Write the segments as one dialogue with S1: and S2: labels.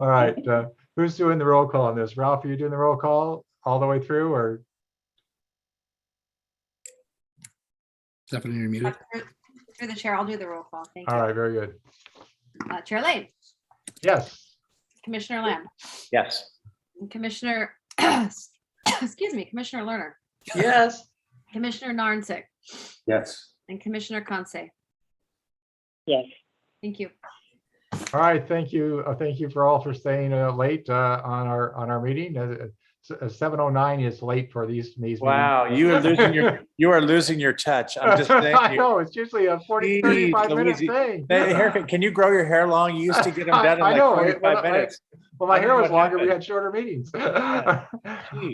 S1: All right, uh, who's doing the roll call on this? Ralph, are you doing the roll call all the way through or?
S2: Stephanie, you're muted.
S3: Through the chair, I'll do the roll call. Thank
S1: All
S3: you.
S1: right, very good.
S3: Uh, Chair Lane,
S1: Yes,
S3: Commissioner Lamb,
S4: Yes.
S3: Commissioner, excuse me, Commissioner Lerner,
S4: Yes.
S3: Commissioner Narnsick,
S4: Yes.
S3: and Commissioner Conce.
S5: Yes.
S3: Thank you.
S1: all right, thank you. Uh, Thank you for all for staying uh, late uh, on our, on our meeting. Uh, uh, 7:09 is late for these, these. meetings.
S4: Wow, you are losing your, you are losing your touch. I'm just
S1: I
S4: saying.
S1: know, it's usually a 40,
S4: Jeez,
S1: 35 minute
S4: Louise,
S1: thing.
S4: Hey, haircut, Can you grow your hair long? You used to get them done in
S1: I know,
S4: like
S1: it- when I-
S4: forty-five minutes.
S1: Well, my
S4: I
S1: hair
S4: wonder
S1: was
S4: what
S1: longer, we
S4: happened.
S1: had shorter meetings.
S4: Yeah.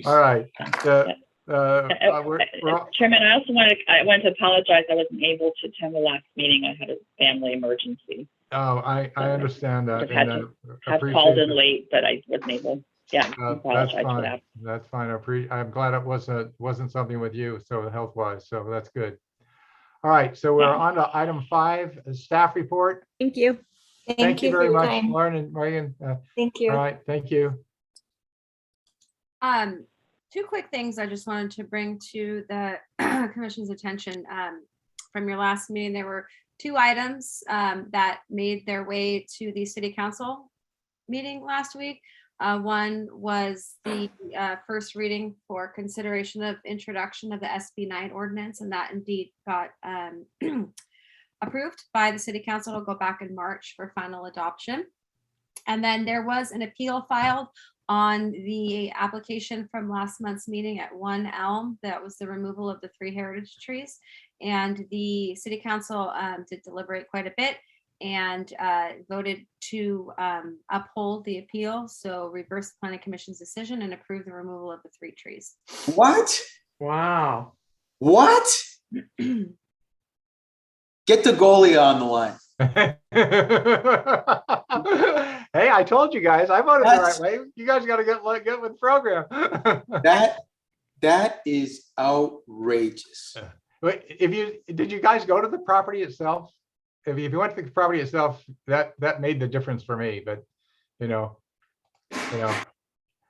S1: All right. the- uh, uh, we're- we're all-
S5: Chairman, I also wanted, I wanted to apologize. I wasn't able to attend the last meeting. I had a family emergency.
S1: Oh, I, I understand that.
S5: Just had
S1: and, uh,
S5: I called
S1: appreciate
S5: in
S1: it.
S5: late, but I wasn't able. Yeah, I
S1: Uh, That's
S5: apologize for
S1: fine.
S5: that.
S1: That's fine. I pre, I'm glad it wasn't, wasn't something with you, so health wise, so that's good. All right, so we're
S5: Yeah.
S1: on to item five, uh, staff report.
S6: Thank you.
S1: Thank you
S6: for
S1: very
S6: your
S1: much,
S6: time.
S1: Lauren and Megan. Uh,
S6: Thank
S1: All
S6: you.
S1: right, thank you.
S3: Um, two quick things I just wanted to bring to the commission's attention. Um, from your last meeting, there were two items, um, that made their way to the city council meeting last week. Uh, one was the, uh, first reading for consideration of introduction of the SB nine ordinance, and that indeed got, um, approved by the city council. It'll go back in March for final adoption. And then there was an appeal filed on the application from last month's meeting at One Elm. That was the removal of the three heritage trees. And the city council um, did deliberate quite a bit and uh, voted to um, uphold the appeal. So reverse the planning commission's decision and approve the removal of the three trees.
S7: What?
S4: Wow.
S7: What? Get the goalie on the line.
S1: Hey, I told you guys, I voted the right
S7: That's-
S1: way. You guys gotta get, like, get with the program.
S7: That that is outrageous.
S1: But if you, did you guys go to the property itself? If you, if you went to the property itself, that, that made the difference for me, but, you know, you know,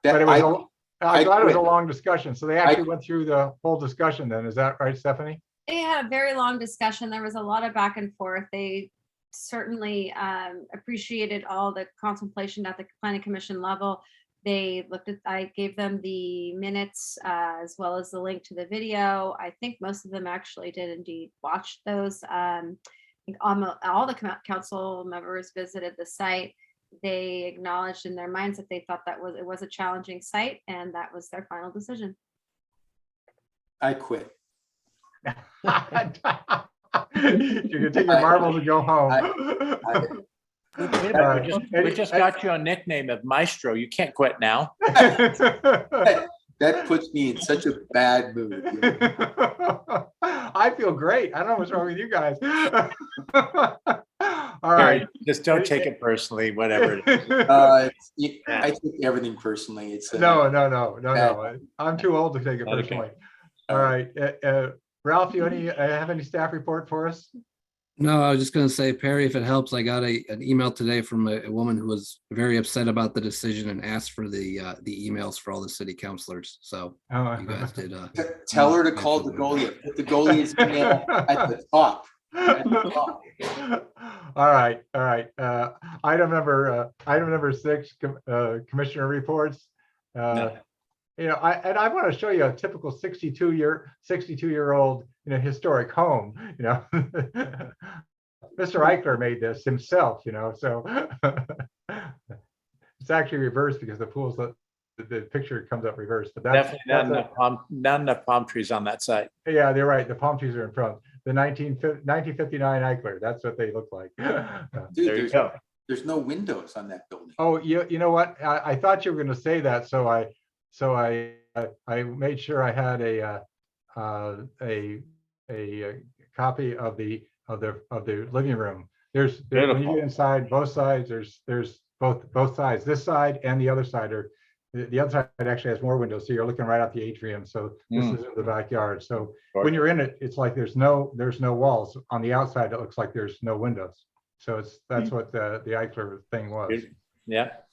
S1: but
S7: That
S1: it was,
S7: I,
S1: a- I'm
S7: I
S1: glad it was a
S7: quit.
S1: long discussion. So they actually went through the whole discussion then. Is that right, Stephanie?
S3: They had a very long discussion. There was a lot of back and forth. They certainly um, appreciated all the contemplation at the planning commission level. They looked at, I gave them the minutes uh, as well as the link to the video. I think most of them actually did indeed watch those. Um, I think almo- all the co- council members visited the site. They acknowledged in their minds that they thought that was, it was a challenging site and that was their final decision.
S7: I quit.
S1: You can take your
S7: I-
S1: marbles and go home.
S7: I-
S4: We did,
S1: All right.
S4: we just-
S1: Any-
S4: we just got you a nickname of Maestro. You can't quit now.
S7: That puts me in such a bad mood.
S1: I feel great. I don't know what's wrong with you guys. All right.
S4: Sorry, Just don't take it personally, whatever. it is.
S7: Uh, you- I take everything personally. It's uh, a,
S1: No, no, no, no, no. I'm too old to take it
S4: Not okay.
S1: personally. All right, uh, uh, Ralph, you any, uh, have any staff report for us?
S2: No, I was just gonna say, Perry, if it helps, I got a, an email today from a, a woman who was very upset about the decision and asked for the, uh, the emails for all the city councilors. So
S1: Oh.
S2: you guys did, uh,
S7: T- Tell her to call the goalie. Put the goalie's name at the top. At the top.
S1: All right, all right. Uh, item number, uh, item number six, com- uh, commissioner reports. Uh, You know, I, and I want to show you a typical sixty-two year, sixty-two year old, you know, historic home, you know. Mr. Eichler made this himself, you know, so. It's actually reversed because the pool's, the, the picture comes up reversed, but that's.
S4: Definitely not
S1: that's a-
S4: enough palm, not enough palm trees on that site.
S1: yeah, they're right. The palm trees are in front. The 19, 1959 Eichler, that's what they look like.
S7: Dude,
S4: There you
S7: there's-
S4: go.
S7: There's no windows on that building.
S1: Oh, you, you know what? I, I thought you were gonna say that, so I, so I, I- I made sure I had a, uh, uh, a, a uh, copy of the, of the, of the living room. There's, there- when you
S4: Beautiful.
S1: get inside, both sides, there's, there's both, both sides, this side and the other side are, the, the other side actually has more windows, so you're looking right out the atrium, so this
S4: Mm.
S1: is in the backyard, so when you're in it, it's like there's no, there's no walls. On the outside, it looks like there's no windows. So it's, that's what the, the Eichler thing was.
S4: Beautiful. Yeah,